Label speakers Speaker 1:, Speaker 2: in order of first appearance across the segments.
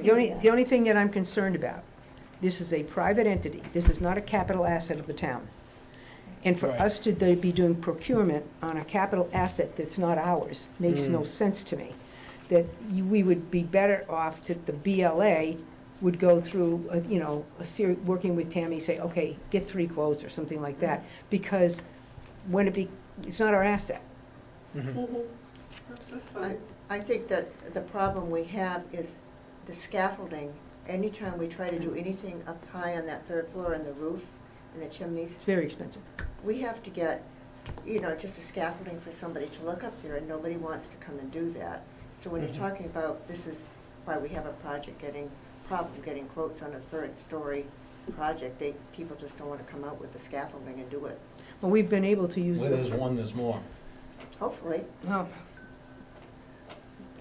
Speaker 1: The only, the only thing that I'm concerned about, this is a private entity, this is not a capital asset of the town. And for
Speaker 2: Right.
Speaker 1: us to they be doing procurement on a capital asset that's not ours makes no
Speaker 2: Mm.
Speaker 1: sense to me. That you- we would be better off that the BLA would go through, uh, you know, a seri, working with Tammy, say, okay, get three quotes or something like
Speaker 3: Mm.
Speaker 1: that. Because when it be, it's not our asset. Mm-hmm.
Speaker 2: Mhm.
Speaker 4: That's
Speaker 5: I
Speaker 4: fine.
Speaker 5: I think that the problem we have is the scaffolding. Anytime we try to do anything up high on that third floor and the roof and the chimneys,
Speaker 1: It's very expensive.
Speaker 5: we have to get, you know, just a scaffolding for somebody to look up there, and nobody wants to come and do that. So when you're
Speaker 1: Mm-hmm.
Speaker 2: Mhm.
Speaker 5: talking about, this is why we have a project getting, problem getting quotes on a third-story project, they, people just don't want to come out with the scaffolding and do it,
Speaker 1: Well, we've been able to use.
Speaker 2: Where
Speaker 1: the-
Speaker 2: there's one, there's more.
Speaker 5: hopefully.
Speaker 1: Well,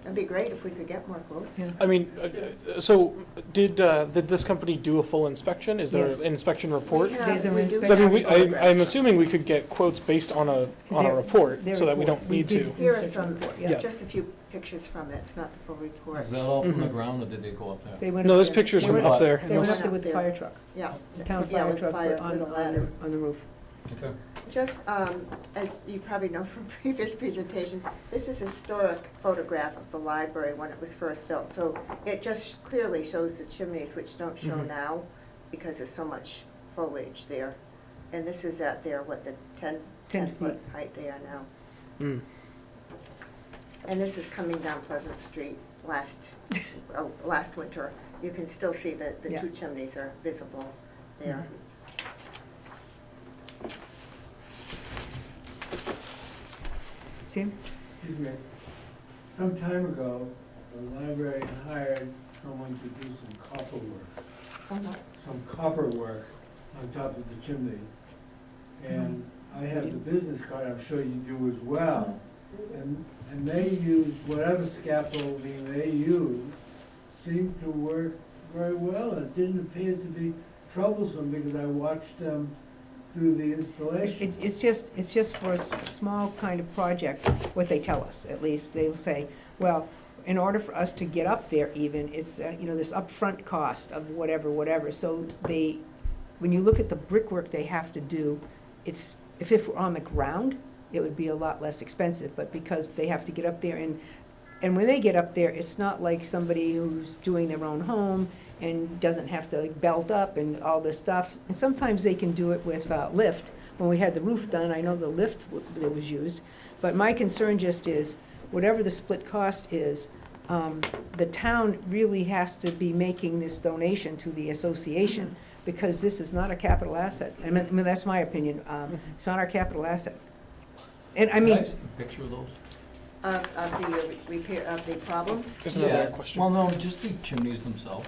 Speaker 5: It'd be great if we could get more quotes.
Speaker 1: Yeah.
Speaker 3: I mean, uh, uh, so did, uh, did this company do a full inspection? Is there
Speaker 1: Yes.
Speaker 3: an inspection report?
Speaker 5: We have-
Speaker 1: There's a
Speaker 5: we do
Speaker 3: So I mean,
Speaker 5: have
Speaker 3: we,
Speaker 5: photographs.
Speaker 3: I, I'm assuming we could get quotes based on a, on a
Speaker 1: Their-
Speaker 3: report,
Speaker 1: their
Speaker 3: so that we
Speaker 1: report.
Speaker 3: don't
Speaker 1: We
Speaker 3: need
Speaker 1: did
Speaker 3: to.
Speaker 5: Here are
Speaker 1: inspection
Speaker 5: some,
Speaker 1: report,
Speaker 3: Yeah.
Speaker 5: just a few pictures from it, it's not the full report.
Speaker 2: Is that all from the
Speaker 3: Mhm.
Speaker 2: ground, or did they go up there?
Speaker 1: They went.
Speaker 3: No,
Speaker 1: up
Speaker 3: this
Speaker 1: there-
Speaker 3: picture's
Speaker 1: they
Speaker 3: from
Speaker 1: went
Speaker 3: up
Speaker 2: up-
Speaker 3: there.
Speaker 1: They
Speaker 5: Yeah.
Speaker 1: went
Speaker 3: Unless-
Speaker 1: up there with the fire truck,
Speaker 5: Yeah.
Speaker 1: the town
Speaker 5: Yeah,
Speaker 1: fire
Speaker 5: with
Speaker 1: truck
Speaker 5: fire-
Speaker 1: on,
Speaker 5: with a
Speaker 1: on
Speaker 5: ladder.
Speaker 1: the- on the roof.
Speaker 2: Okay.
Speaker 5: Just, um, as you probably know from previous presentations, this is a historic photograph of the library when it was first built. So it just clearly shows the chimneys, which don't show
Speaker 3: Mhm.
Speaker 5: now because there's so much foliage there. And this is at their, what, the 10
Speaker 1: Ten
Speaker 5: 10 foot height they are now.
Speaker 3: Mm.
Speaker 5: And this is coming down Pleasant Street last, uh, last winter. You can still see that the
Speaker 1: Yeah. Mm-hmm.
Speaker 5: two chimneys are visible there.
Speaker 1: See,
Speaker 4: Excuse me. Some time ago, the library hired someone to do some copper work,
Speaker 5: Uh-huh.
Speaker 4: some copper work on top of the chimney. And I have the business card, I'm sure you do as well. And, and they used, whatever scaffolding they used seemed to work very well. And it didn't appear to be troublesome because I watched them do the installation.
Speaker 1: it's, it's just, it's just for a s- small kind of project, what they tell us, at least, they'll say, well, in order for us to get up there even, it's, uh, you know, this upfront cost of whatever, whatever, so they, when you look at the brickwork they have to do, it's, if it were on the ground, it would be a lot less expensive, but because they have to get up there and, and when they get up there, it's not like somebody who's doing their own home and doesn't have to belt up and all this stuff. And sometimes they can do it with uh, lift. When we had the roof done, I know the lift w- that was used. But my concern just is, whatever the split cost is, um, the town really has to be making this donation to the association because this is not a capital asset. I mean, I mean, that's my opinion. Um, It's not our capital asset. And I
Speaker 2: Can
Speaker 1: mean,
Speaker 2: see a picture of those?
Speaker 5: Of, of the uh, repair, of the problems,
Speaker 3: There's another
Speaker 2: Yeah. Well,
Speaker 3: question. Oh,
Speaker 2: no, just the chimneys themselves.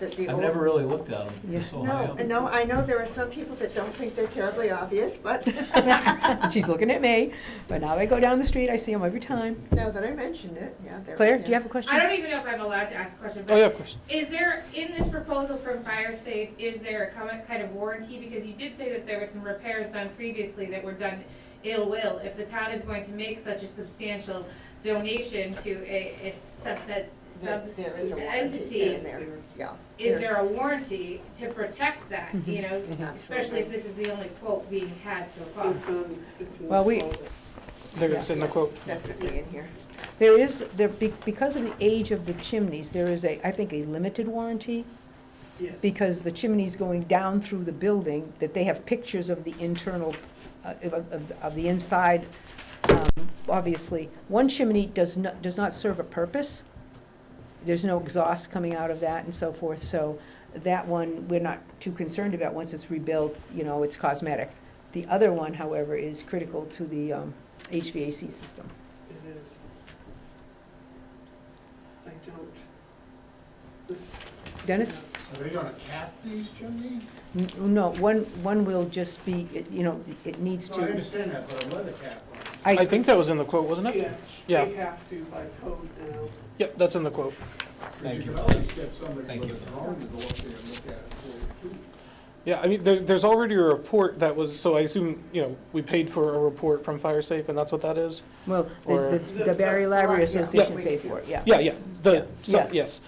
Speaker 5: that the
Speaker 2: I've
Speaker 5: old.
Speaker 2: never really looked at them, they're
Speaker 1: Yeah.
Speaker 2: so high
Speaker 5: No,
Speaker 2: up.
Speaker 5: no, I know there are some people that don't think they're terribly obvious, but
Speaker 1: she's looking at me, but now they go down the street, I see them every time.
Speaker 5: now that I mentioned it, yeah, they're.
Speaker 1: Claire, do you have a question?
Speaker 6: I don't even know if I'm allowed to ask a question,
Speaker 3: Oh, yeah,
Speaker 6: but
Speaker 3: of course.
Speaker 6: is there, in this proposal from Fire Safe, is there a comment- kind of warranty? Because you did say that there were some repairs done previously that were done ill will. If the town is going to make such a substantial donation to a, a subset, sub
Speaker 5: There is a warranty
Speaker 6: entity,
Speaker 5: in there, yeah.
Speaker 6: is there a warranty to protect that,
Speaker 3: Mm-hmm.
Speaker 6: you know?
Speaker 5: Mm-hmm.
Speaker 6: Especially if this is the only quote being had so far.
Speaker 4: It's on, it's in.
Speaker 1: Well, we-
Speaker 3: There is in the
Speaker 5: Yes,
Speaker 3: quote.
Speaker 5: Separately in here.
Speaker 1: There is, there, be- because of the age of the chimneys, there is a, I think, a limited warranty, because the chimney's going down through the building, that they have pictures of the internal, uh, of, of- of the inside, um, obviously. One chimney does not, does not serve a purpose. There's no exhaust coming out of that and so forth, so that one, we're not too concerned about. Once it's rebuilt, you know, it's cosmetic. The other one, however, is critical to the um, HVAC system.
Speaker 7: It is. I don't, this,
Speaker 1: Dennis?
Speaker 8: Are they gonna cap these chimneys?
Speaker 1: N- No, one, one will just be, it- you know, it needs
Speaker 8: No, I
Speaker 1: to,
Speaker 8: understand that, but a leather cap on it.
Speaker 3: I
Speaker 1: I,
Speaker 3: think that was in the quote, wasn't it?
Speaker 7: yes,
Speaker 3: Yeah.
Speaker 7: they have to by code now.
Speaker 3: Yep, that's in the quote.
Speaker 8: Because
Speaker 2: Thank you.
Speaker 8: could always get somebody
Speaker 2: Thank you.
Speaker 8: with a drone to go up there and look at it for you, too.
Speaker 3: Yeah, I mean, there, there's already a report that was, so I assume, you know, we paid for a report from Fire Safe, and that's what that is?
Speaker 1: Well,
Speaker 3: Or-
Speaker 1: the- the the Barry Library
Speaker 5: Yeah.
Speaker 1: Association
Speaker 5: Yeah.
Speaker 1: paid for it, yeah.
Speaker 3: Yeah, yeah,
Speaker 1: Yeah,
Speaker 3: the, so-
Speaker 1: yeah.
Speaker 3: yes.